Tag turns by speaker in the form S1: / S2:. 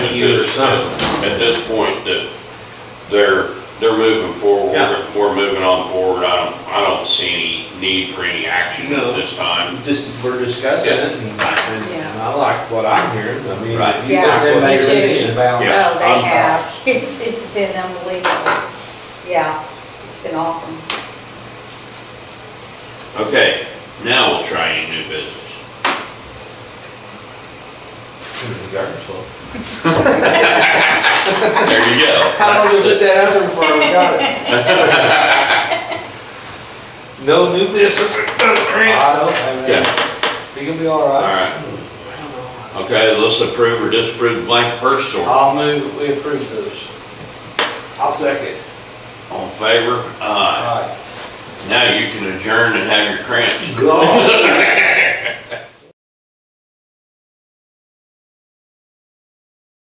S1: used at this point that they're, they're moving forward.
S2: Yeah.
S1: We're moving on forward. I don't, I don't see any need for any action
S2: No.
S1: at this time.
S2: Just, we're discussing it, and I, and- and I like what I'm hearing, I mean,
S1: Right.
S2: if you
S3: Yeah,
S2: like what
S3: me
S2: you're
S3: too.
S2: saying about.
S1: Yeah.
S3: Oh,
S1: I'm-
S3: they have. It's, it's been unbelievable. Yeah, it's been awesome.
S1: Okay, now we'll try any new business. There you go.
S2: How long
S1: That's
S2: did we put
S1: the-
S2: that out there before we got it? No new business? I don't have
S1: Yeah.
S2: that. You gonna be all right?
S1: All right. Okay, let's approve or disapprove blank purse order.
S2: I'll move, we approve those. I'll second.
S1: All in favor? Aye.
S2: Alright.
S1: Now you can adjourn and have your cramps.
S2: God.